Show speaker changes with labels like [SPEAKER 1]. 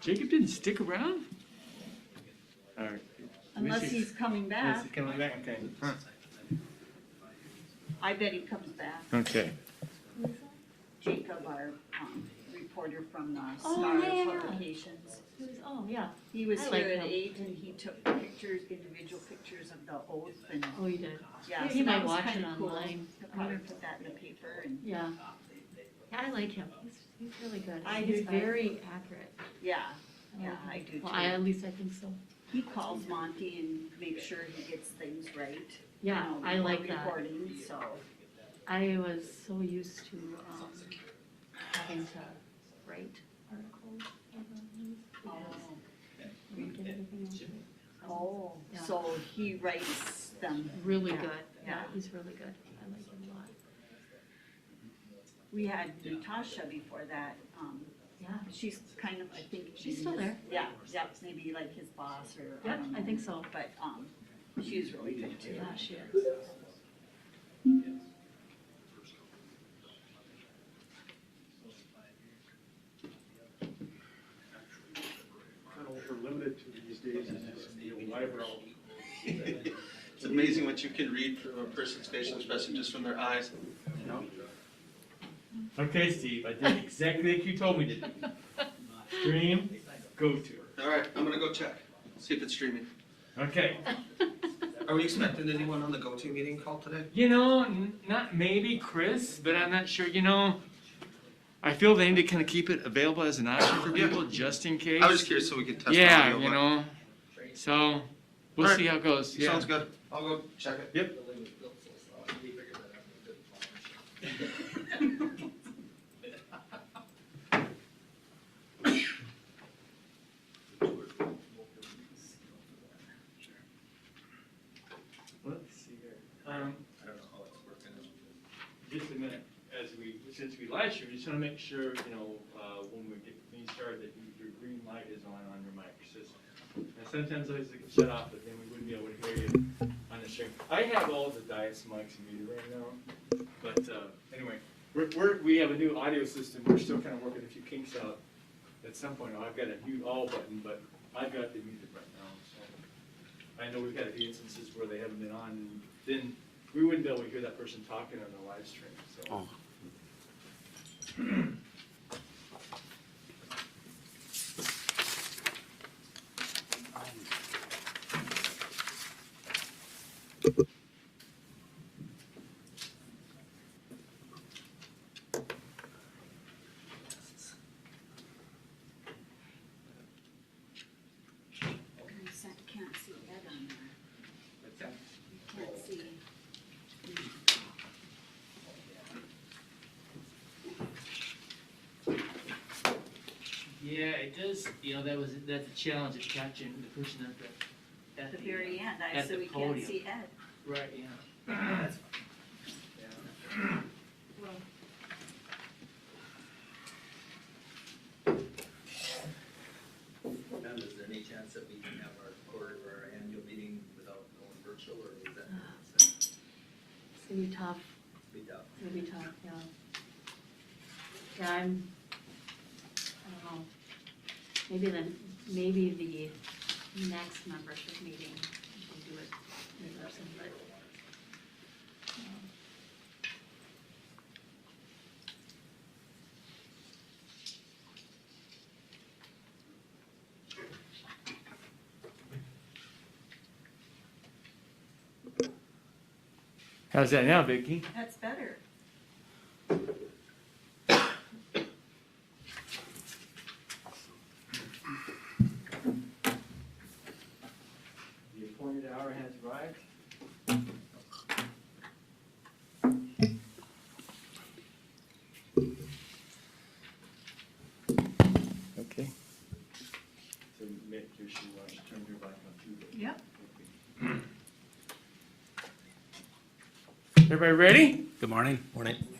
[SPEAKER 1] Jacob didn't stick around? All right.
[SPEAKER 2] Unless he's coming
[SPEAKER 1] Unless
[SPEAKER 2] back.
[SPEAKER 1] he's coming back, okay.
[SPEAKER 2] I bet he comes back.
[SPEAKER 1] Okay.
[SPEAKER 2] Jacob, our um, reporter from the
[SPEAKER 3] Oh,
[SPEAKER 2] Star
[SPEAKER 3] yeah, yeah, yeah.
[SPEAKER 2] Publications.
[SPEAKER 3] Who's, oh, yeah.
[SPEAKER 2] He was
[SPEAKER 3] I like
[SPEAKER 2] here at
[SPEAKER 3] him.
[SPEAKER 2] eight and he took pictures, individual pictures of the oath and,
[SPEAKER 3] Oh, you did.
[SPEAKER 2] yeah,
[SPEAKER 3] He
[SPEAKER 2] so
[SPEAKER 3] might
[SPEAKER 2] that was
[SPEAKER 3] watch it
[SPEAKER 2] kind of cool.
[SPEAKER 3] online.
[SPEAKER 2] He'll Probably put that in the paper and,
[SPEAKER 3] Yeah. Yeah, I like him. He's, he's really good.
[SPEAKER 2] I
[SPEAKER 3] He's
[SPEAKER 2] do too.
[SPEAKER 3] very accurate.
[SPEAKER 2] yeah,
[SPEAKER 3] like
[SPEAKER 2] yeah,
[SPEAKER 3] him.
[SPEAKER 2] I do
[SPEAKER 3] Oh, Well, I,
[SPEAKER 2] too.
[SPEAKER 3] at least I think so.
[SPEAKER 2] He calls Monty and makes sure he gets things right. you
[SPEAKER 3] Yeah,
[SPEAKER 2] know,
[SPEAKER 3] I
[SPEAKER 2] before
[SPEAKER 3] like that.
[SPEAKER 2] Recording, so,
[SPEAKER 3] I was so used to, um, having to write articles. for the news
[SPEAKER 2] oh,
[SPEAKER 3] because I don't get everything else right.
[SPEAKER 2] oh,
[SPEAKER 3] Yeah.
[SPEAKER 2] so he writes them.
[SPEAKER 3] Really
[SPEAKER 2] Yeah,
[SPEAKER 3] good. Yeah,
[SPEAKER 2] yeah.
[SPEAKER 3] he's really good. I like him a lot.
[SPEAKER 2] We had Natasha before that, um,
[SPEAKER 3] Yeah.
[SPEAKER 2] She's kind of, I think.
[SPEAKER 3] She's
[SPEAKER 2] maybe
[SPEAKER 3] still
[SPEAKER 2] his-
[SPEAKER 3] there.
[SPEAKER 2] Yeah, yeah, it's maybe like his boss or.
[SPEAKER 3] Yeah,
[SPEAKER 2] don't
[SPEAKER 3] I think
[SPEAKER 2] know.
[SPEAKER 3] so.
[SPEAKER 2] But, um, she's really good too.
[SPEAKER 3] Yeah, she is.
[SPEAKER 4] kind of what we're limited to these days is this you know, live route.
[SPEAKER 5] It's amazing what you can read from a person's facial expression just from their eyes, you know?
[SPEAKER 1] Okay, Steve, I did exactly like you told me to. do. Stream, go to.
[SPEAKER 5] All right, I'm gonna go check, see if it's streaming.
[SPEAKER 1] Okay.
[SPEAKER 5] Are we expecting anyone on the go-to meeting call today?
[SPEAKER 1] You know, n- not maybe Chris, but I'm not sure, you know, I feel they need to kind of keep it available as an option for
[SPEAKER 5] Yeah.
[SPEAKER 1] people, just in case.
[SPEAKER 5] I was just curious so we could test.
[SPEAKER 1] Yeah,
[SPEAKER 5] audio,
[SPEAKER 1] you
[SPEAKER 5] but-
[SPEAKER 1] know, so, we'll
[SPEAKER 5] Alright.
[SPEAKER 1] see how it goes, yeah.
[SPEAKER 5] Sounds good. I'll go check it.
[SPEAKER 1] Yep. Let's see here. Um, just a minute, as we, since we last year, we just wanna make sure, you know, uh, when we get things started, that you- your green light is on on your mic system. And sometimes those get shut off, but then we wouldn't be able to hear you on the stream. I have all the Dias mics muted right now, but, uh, anyway, we're, we're, we have a new audio system, we're still kinda working a few kinks out. At some point, I've got a mute all button, but I've got the muted right now, so. I know we've had a few instances where they haven't been on, and then we wouldn't be able to hear that person talking on the live stream, so.
[SPEAKER 2] You sa- can't see Ed on there. You can't see.
[SPEAKER 6] Yeah, it does, you know, that was, that's a challenge of catching the person at the, at
[SPEAKER 2] At
[SPEAKER 6] the.
[SPEAKER 2] the very end, I,
[SPEAKER 6] At
[SPEAKER 2] so
[SPEAKER 6] the
[SPEAKER 2] we can't
[SPEAKER 6] podium.
[SPEAKER 2] see Ed.
[SPEAKER 6] uh, Right, yeah.
[SPEAKER 7] Now, is there any chance that we can have our quarter of our annual meeting without going virtual or is that
[SPEAKER 3] It's gonna be tough.
[SPEAKER 7] be tough?
[SPEAKER 3] It's gonna be tough, yeah. Yeah, I'm, I don't know. Maybe the, maybe the next membership meeting, we do it in person, but. um,
[SPEAKER 1] How's that now, Vicky?
[SPEAKER 2] That's better.
[SPEAKER 1] The appointed hour has arrived. Okay. So make sure she watches, turn your back on TV.
[SPEAKER 2] Yep.
[SPEAKER 1] Everybody ready?
[SPEAKER 7] Good morning. Morning.